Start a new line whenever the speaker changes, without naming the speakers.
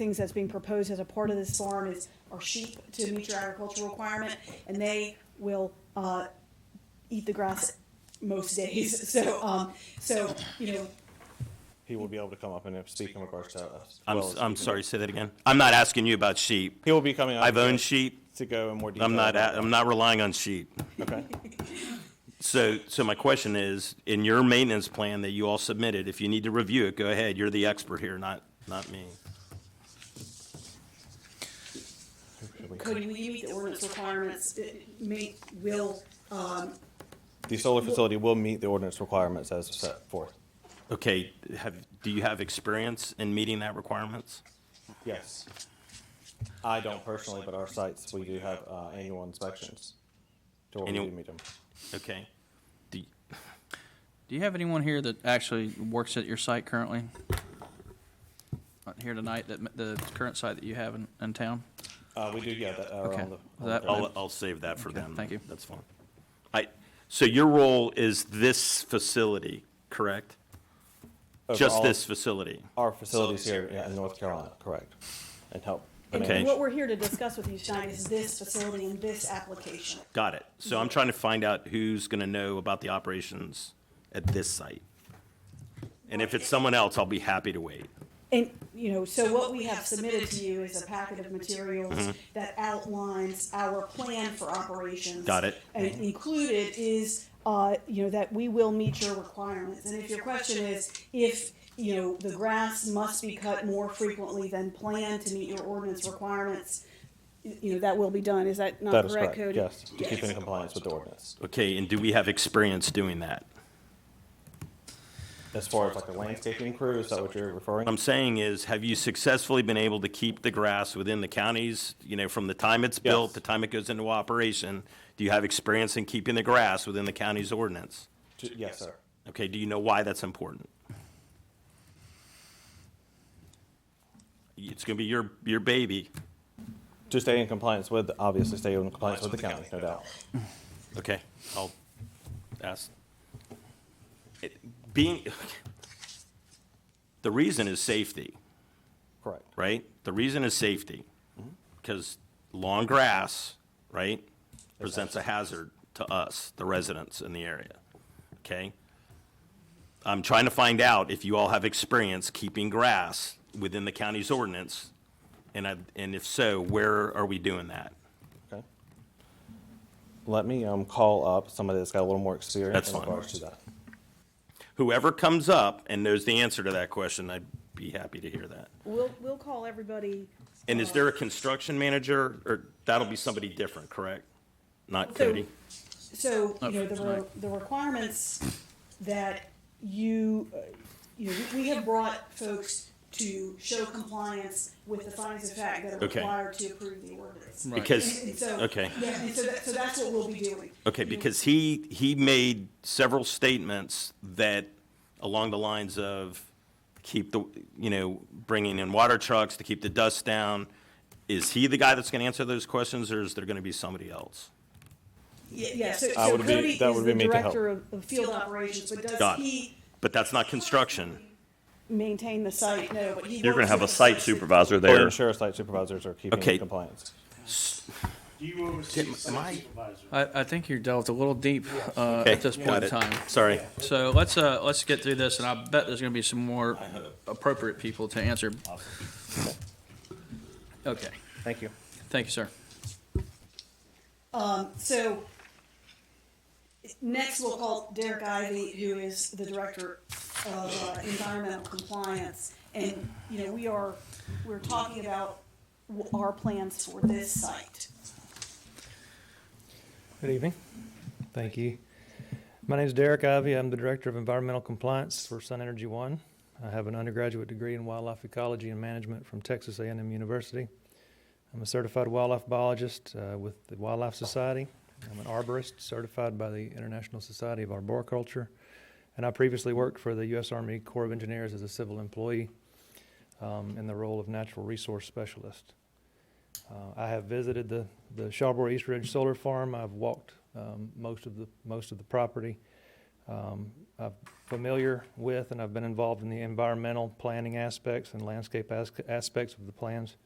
things that's being proposed as a part of this farm is, are sheep to meet your agricultural requirement, and they will, uh, eat the grass most days, so, um, so, you know,
He will be able to come up and speak in regards to us.
I'm, s- I'm sorry, say that again. I'm not asking you about sheep.
He will be coming up.
I've owned
to-
sheep.
To go in more detail.
I'm not,
about
a- I'm not relying on sheep.
that. Okay.
So, so my question is, in your maintenance plan that you all submitted, if you need to review it, go ahead. You're the expert here, not, not me.
could we meet the ordinance requirements, it may, will, um,
The solar facility will meet the ordinance requirements as set forth.
Okay, have, do you have experience in meeting that requirements?
Yes. I don't personally, but our sites, we do have uh, annual inspections. To where we
Annual-
do meet them.
Okay. Do you-
Do you have anyone here that actually works at your site currently? Uh, Here tonight, that, m- the current site that you have in, in town?
Uh, we do, yeah, that are
Okay.
on the. on
That-
the-
I'll, I'll save that for them.
thank you.
That's fine. I, so your role is this facility, correct? Just
overall,
this facility?
Our facilities here yeah, in North Carolina, correct. And help.
and
Okay.
what we're here to discuss with you tonight is this facility and this application.
Got it. So I'm trying to find out who's going to know about the operations at this site. And if it's someone else, I'll be happy to wait.
And, you know, so what we have submitted to you is a packet of materials that outlines our plan for operations.
Got it.
And included is, uh, you know, that we will meet your requirements. And if your question is, if, you know, the grass must be cut more frequently than planned to meet your ordinance requirements, y- you know, that will be done. Is that not
That is
correct,
correct,
Cody?
yes, to keep in compliance with the ordinance.
Okay, and do we have experience doing that?
As far as like the landscaping crew, is that what you're referring?
I'm saying is, have you successfully been able to keep the grass within the counties, you know, from the time it's built,
Yes.
the time it goes into operation? Do you have experience in keeping the grass within the county's ordinance?
J- Yes, sir.
Okay, do you know why that's important? It's going to be your, your baby.
To stay in compliance with, obviously stay in compliance with the county, no doubt.
Okay, I'll ask. It- Being, the reason is safety,
Correct.
right? The reason is safety, because long grass, right, presents a hazard to us, the residents in the area, okay? I'm trying to find out if you all have experience keeping grass within the county's ordinance, and I, and if so, where are we doing that?
Okay. Let me um, call up somebody that's got a little more experience
That's
in
fine.
regards to that.
whoever comes up and knows the answer to that question, I'd be happy to hear that.
We'll, we'll call everybody.
And is there a construction manager, or that'll be somebody different, correct? Not Cody?
So, you
Not
know,
for
the, re-
tonight.
the requirements that you, uh, you know, we- we have brought folks to show compliance with the findings of fact that are
Okay.
required to approve the ordinance.
Right.
Because,
And- and so-
okay.
Yeah, and so that, so that's what we'll be doing.
Okay, because he, he made several statements that, along the lines of keep the, you know, bringing in water trucks to keep the dust down. Is he the guy that's gonna answer those questions, or is there gonna be somebody else?
Yeah, yeah, so,
I
so
would be-
Cody is
that would be
the
me to help.
director of, of field operations, but does
Got it.
he
But that's not construction.
maintain the site? No, but he.
You're going
works
to have a
with the
site
site
supervisor
Or
there.
ensure site supervisors are keeping
Okay.
in compliance.
Do you oversee the site supervisor?
I, I think you delved a little deep, uh,
Okay,
at this
got
point in
it.
time.
Sorry.
So let's, uh, let's get through this, and I bet there's gonna be some more appropriate people to answer. Okay,
Thank you.
thank you, sir.
So, next we'll call Derek Ivy, who is the Director of uh, Environmental Compliance. And, you know, we are, we're talking about w- our plans for this site.
Good evening. Thank you. My name is Derek Ivy. I'm the Director of Environmental Compliance for Sun Energy One. I have an undergraduate degree in wildlife ecology and management from Texas A&M University. I'm a certified wildlife biologist uh, with the Wildlife Society. I'm an arborist certified by the International Society of Arboriculture, and I previously worked for the U.S. Army Corps of Engineers as a civil employee um, in the role of natural resource specialist. Uh, I have visited the, the Shawboro East Ridge Solar Farm. I've walked um, most of the most of the property. um, I'm familiar with, and I've been involved in the environmental planning aspects and landscape as- aspects of the plans.